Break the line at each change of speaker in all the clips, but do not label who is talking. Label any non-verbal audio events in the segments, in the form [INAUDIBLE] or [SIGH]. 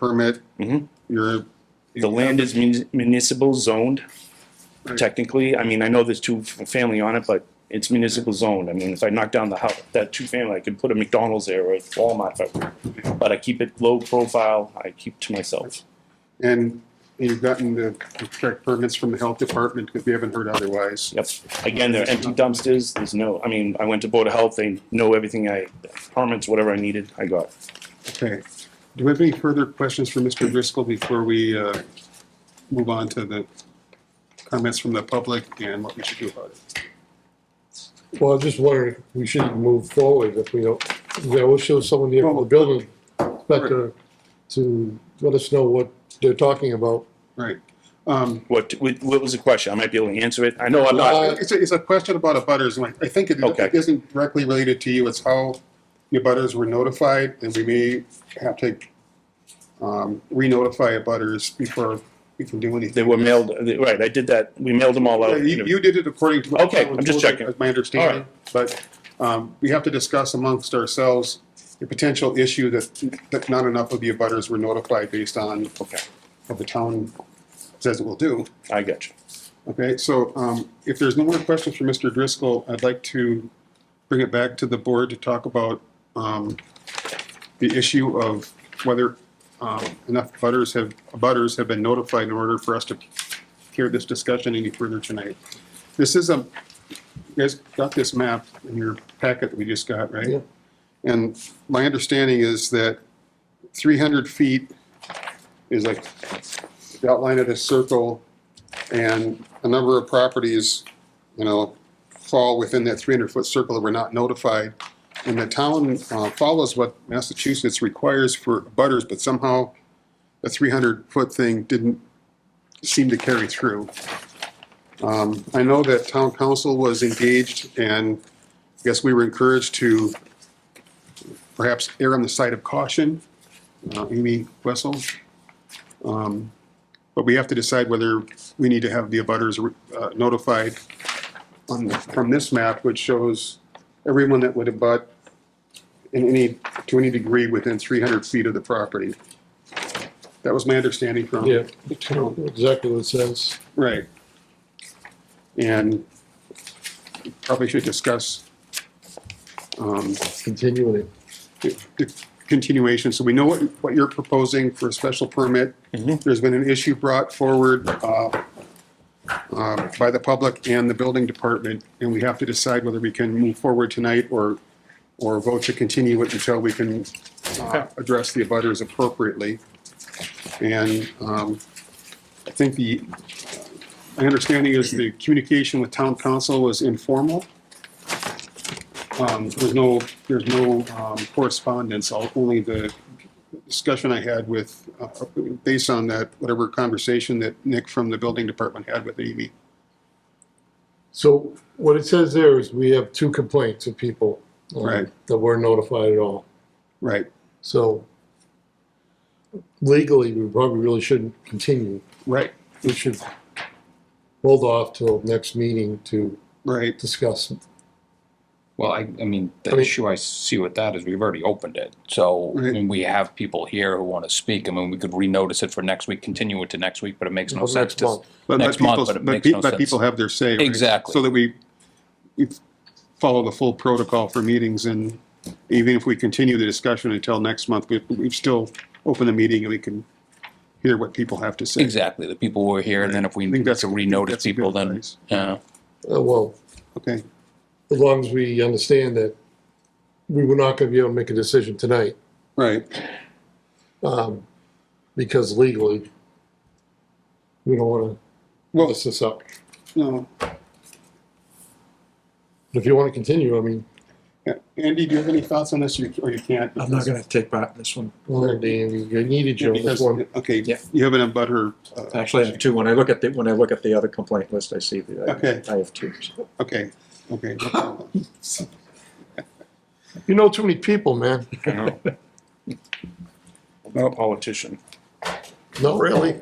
permit.
Mhm.
You're.
The land is mun- municipal zoned, technically. I mean, I know there's two f- family on it, but it's municipal zoned. I mean, if I knock down the house, that two family, I could put a McDonald's there or a Walmart. if I- But I keep it low profile. I keep to myself.
And you've gotten the correct permits from the health department because we haven't heard otherwise.
Yep. Again, they're empty dumpsters. There's no, I mean, I went to Board of Health. They know everything I, permits, whatever I needed, I got.
Okay. Do we have any further questions for Mr. Driscoll before we uh, move on to the comments from the public and what we should do about it?
Well, I'm just wondering, if we should move forward if we don't, yeah, we'll show someone here from the building inspector to let us know what they're talking about.
Right. Um,
What, what what was the question? I might be able to answer it. I know I'm not,
Uh,
It's a, it's a question about abutters, and I- I think it
Okay.
it isn't directly related to you. It's how the abutters were notified, and we may have to um, re-notify abutters before we can do anything.
they were mailed, right, I did that. We mailed them all
Yeah,
out.
You, you did it according to. what
Okay,
I was
I'm just
told,
checking.
That's my understanding, but, um, we have to discuss amongst ourselves the potential issue that, that not enough of the abutters were notified based on
Okay,
what the town says it will do.
I got you.
Okay, so, um, if there's no more questions for Mr. Driscoll, I'd like to bring it back to the board to talk about, um, the issue of whether, um, enough butters have, butters have been notified in order for us to carry this discussion any further tonight. This is a, you guys got this map in your packet that we just got,
Yeah.
right? And my understanding is that three hundred feet is like the outline of this circle, and a number of properties, you know, fall within that 300-foot circle that were not notified. And the town uh, follows what Massachusetts requires for butters, but somehow the 300-foot thing didn't seem to carry through. Um, I know that town council was engaged, and I guess we were encouraged to perhaps err on the side of caution, uh, Amy Wessel. Um, But we have to decide whether we need to have the abutters uh, notified on, from this map, which shows everyone that would abut in any, to any degree within 300 feet of the property. That was my understanding from.
Yeah, exactly what it says.
Right. And probably should discuss um,
Continuing it.
the the continuation. So we know what, what you're proposing for a special permit.
Mhm.
There's been an issue brought forward uh, um, by the public and the building department, and we have to decide whether we can move forward tonight or, or vote to continue it until we can uh, address the abutters appropriately. And um, I think the, my understanding is the communication with town council was informal. Um, There's no, there's no um, correspondence, All- only the discussion I had with, uh, based on that, whatever conversation that Nick from the building department had with Amy.
So what it says there is we have two complaints of people. um,
Right.
That weren't notified at all.
Right,
So legally, we probably really shouldn't continue.
right,
We should hold off till next meeting to
right.
discuss
Well, I, I mean,
I
the
mean-
issue I see with that is we've already opened it. So, I
Right.
mean, we have people here who want to speak. I mean, we could renotice it for next week, continue it to next week, but it makes no
Well,
sense.
next
to-
month.
But- but
Next month,
people-
but it
but
makes
pe-
no
But
sense.
people have their say. right?
Exactly.
So that we, we follow the full protocol for meetings, and even if we continue the discussion until next month, we, we've still opened the meeting and we can hear what people have to say.
Exactly. The people who are here, and then if we
I think
need to
that's-
renotice
that's a good
people, then,
place.
yeah.
Uh, Well,
Okay,
as long as we understand that we were not gonna be able to make a decision tonight,
right.
um, because legally, we don't wanna
Well,
mess this up.
no,
If you wanna continue, I mean,
Yeah. Andy, do you have any thoughts on this, You- or you can't?
I'm not gonna take part in this one.
well, Dan, you needed
Yeah,
you on this
because-
one.
Okay,
Yeah.
you have an abutter. uh,
Actually, I have two. When I look at the, when I look at the other complaint list, I see
Okay.
that I- I have two.
Okay, okay. no problem.
[LAUGHS]
You know too many people, man.
I'm a politician.
Not really.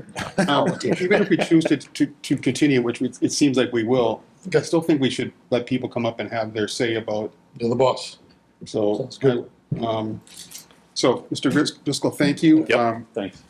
Um, Even if we choose to, to, to continue, which we- it seems like we will, I still think we should let people come up and have their say about,
You're the boss.
so.
Sounds good.
um,
So, Mr. Driscoll, thank you.
Yep.
Um,
Thanks.